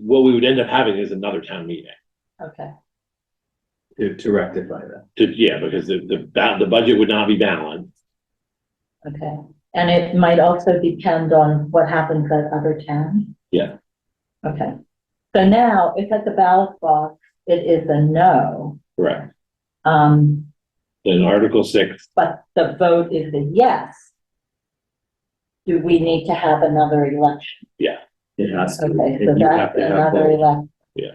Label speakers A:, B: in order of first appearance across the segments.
A: what we would end up having is another town meeting.
B: Okay,
C: to, to rectify that.
A: To, yeah, because the, the, ba- the budget would not be balanced.
B: okay. And it might also depend on what happens at other town?
A: Yeah.
B: Okay. So now, if at the ballot box, it is a no,
A: Correct.
B: um,
A: Then Article six,
B: but the vote is a yes, do we need to have another election?
C: It has to.
B: Okay,
C: it-
B: so
C: you have
B: that's
C: to have
B: another
C: both.
B: election.
A: Yeah.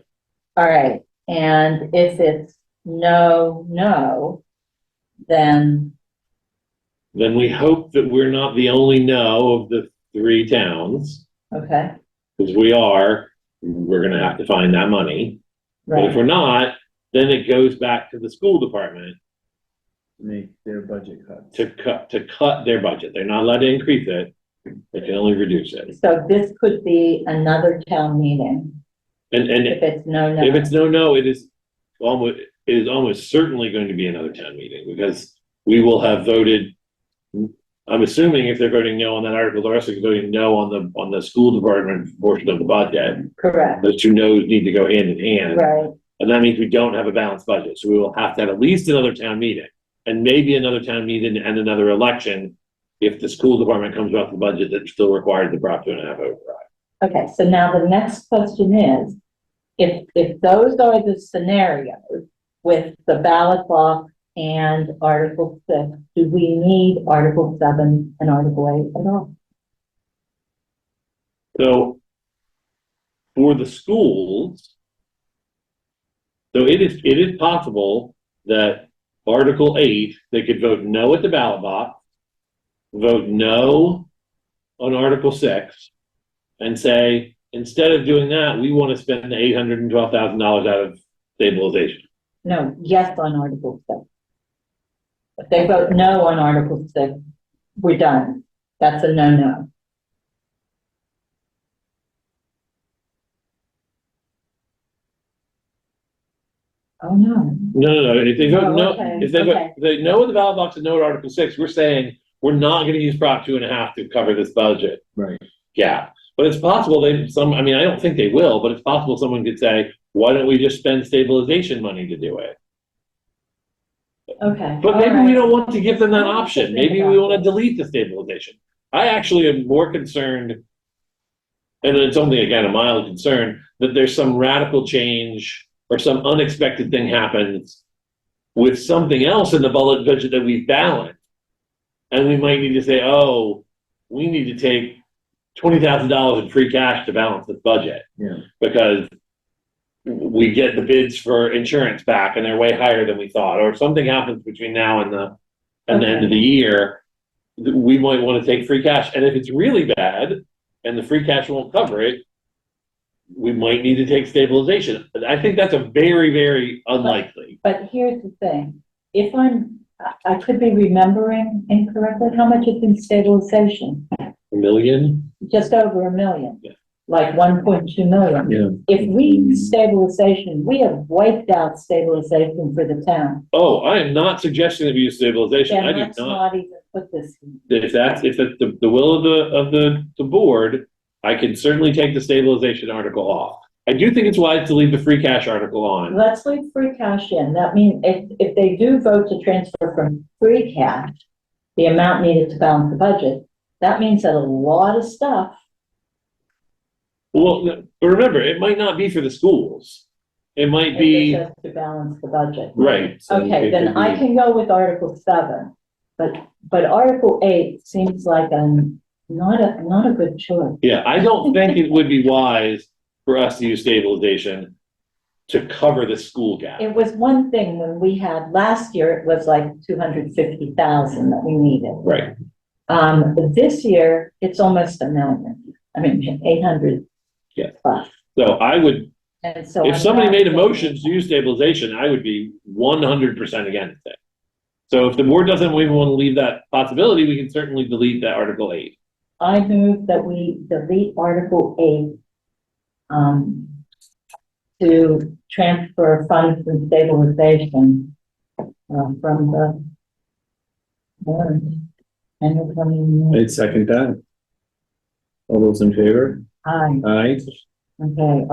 B: All right, and if it's no, no, then,
A: then we hope that we're not the only no of the three towns,
B: okay,
A: because we are, we're gonna have to find that money. But if
B: right,
A: we're not, then it goes back to the school department
C: Make their budget cuts.
A: to cut, to cut their budget. They're not allowed to increase it. They can only reduce it.
B: so this could be another town meeting.
A: And, and
B: If it's no, no.
A: If it's no, no, it is almost, it is almost certainly going to be another town meeting because we will have voted. I'm assuming if they're voting no on that article, they're also voting no on the, on the school department portion of the budget.
B: Correct,
A: Those two no's need to go hand in hand.
B: right,
A: And that means we don't have a balanced budget. So we will have to have at least another town meeting and maybe another town meeting and another election. If the school department comes off the budget, that still requires the Prop two and a half override.
B: okay, so now the next question is, if, if those are the scenarios with the ballot box and Article six, do we need Article seven and Article eight at all?
A: So for the schools, so it is, it is possible that Article eight, they could vote no at the ballot box, vote no on Article six, and say, instead of doing that, we want to spend the eight hundred and twelve thousand dollars out of stabilization.
B: No, yes on Article six. If they vote no on Article six, we're done, that's a no-no. Oh, no.
A: No, no, no, if they vote
B: Oh,
A: no,
B: okay,
A: if they
B: okay.
A: vote, if they no at the ballot box and no at Article six, we're saying, we're not gonna use Prop two and a half to cover this budget.
C: Right.
A: Yeah, but it's possible they, some, I mean, I don't think they will, but it's possible someone could say, why don't we just spend stabilization money to do it?
B: Okay.
A: But maybe we
B: alright.
A: don't want to give them that option, maybe we
B: Yeah.
A: wanna delete the stabilization. I actually am more concerned, and it's only again a mild concern, that there's some radical change or some unexpected thing happens with something else in the bullet budget that we balance. And we might need to say, oh, we need to take twenty thousand dollars in free cash to balance this budget
C: Yeah,
A: because we get the bids for insurance back and they're way higher than we thought, or if something happens between now and the, and the end of the year, th- we might want to take free cash. And if it's really bad and the free cash won't cover it, we might need to take stabilization. But I think that's a very, very unlikely.
B: But here's the thing, if I'm, I- I could be remembering incorrectly, how much is in stabilization?
A: A Million?
B: Just over a million.
A: Yeah.
B: Like one point two million.
C: yeah.
B: If we stabilization, we have wiped out stabilization for the town.
A: Oh, I am not suggesting that we use stabilization. I
B: Then
A: do
B: let's
A: not.
B: not even put this, in.
A: if that's, if it's the, the will of the, of the, the board, I can certainly take the stabilization article off. I do think it's wise to leave the free cash article on.
B: let's leave free cash in, that means if, if they do vote to transfer from free cash, the amount needed to balance the budget, that means that a lot of stuff
A: Well, but remember, it might not be for the schools. It might
B: is
A: be,
B: just to balance the budget.
A: right,
C: So
B: Okay,
C: it
B: then
C: could
B: I
C: be-
B: can go with Article seven, but, but Article eight seems like a, not a, not a good choice.
A: yeah, I don't think it would be wise for us to use stabilization to cover the school gap.
B: It was one thing when we had, last year, it was like two hundred fifty thousand that we needed.
A: Right,
B: Um, but this year, it's almost a million, I mean, eight hundred
A: Yeah.
B: plus.
A: so I would,
B: And so.
A: if
B: I'm
A: somebody
B: not-
A: made a motion to use stabilization, I would be one hundred percent against it. So if the board doesn't even want to leave that possibility, we can certainly delete that Article eight.
B: I move that we delete Article eight, um, to transfer funds and stabilization, uh, from the warrant, annual coming,
C: I'd second that. All those in favor?
B: aye,
C: Aye.
B: okay,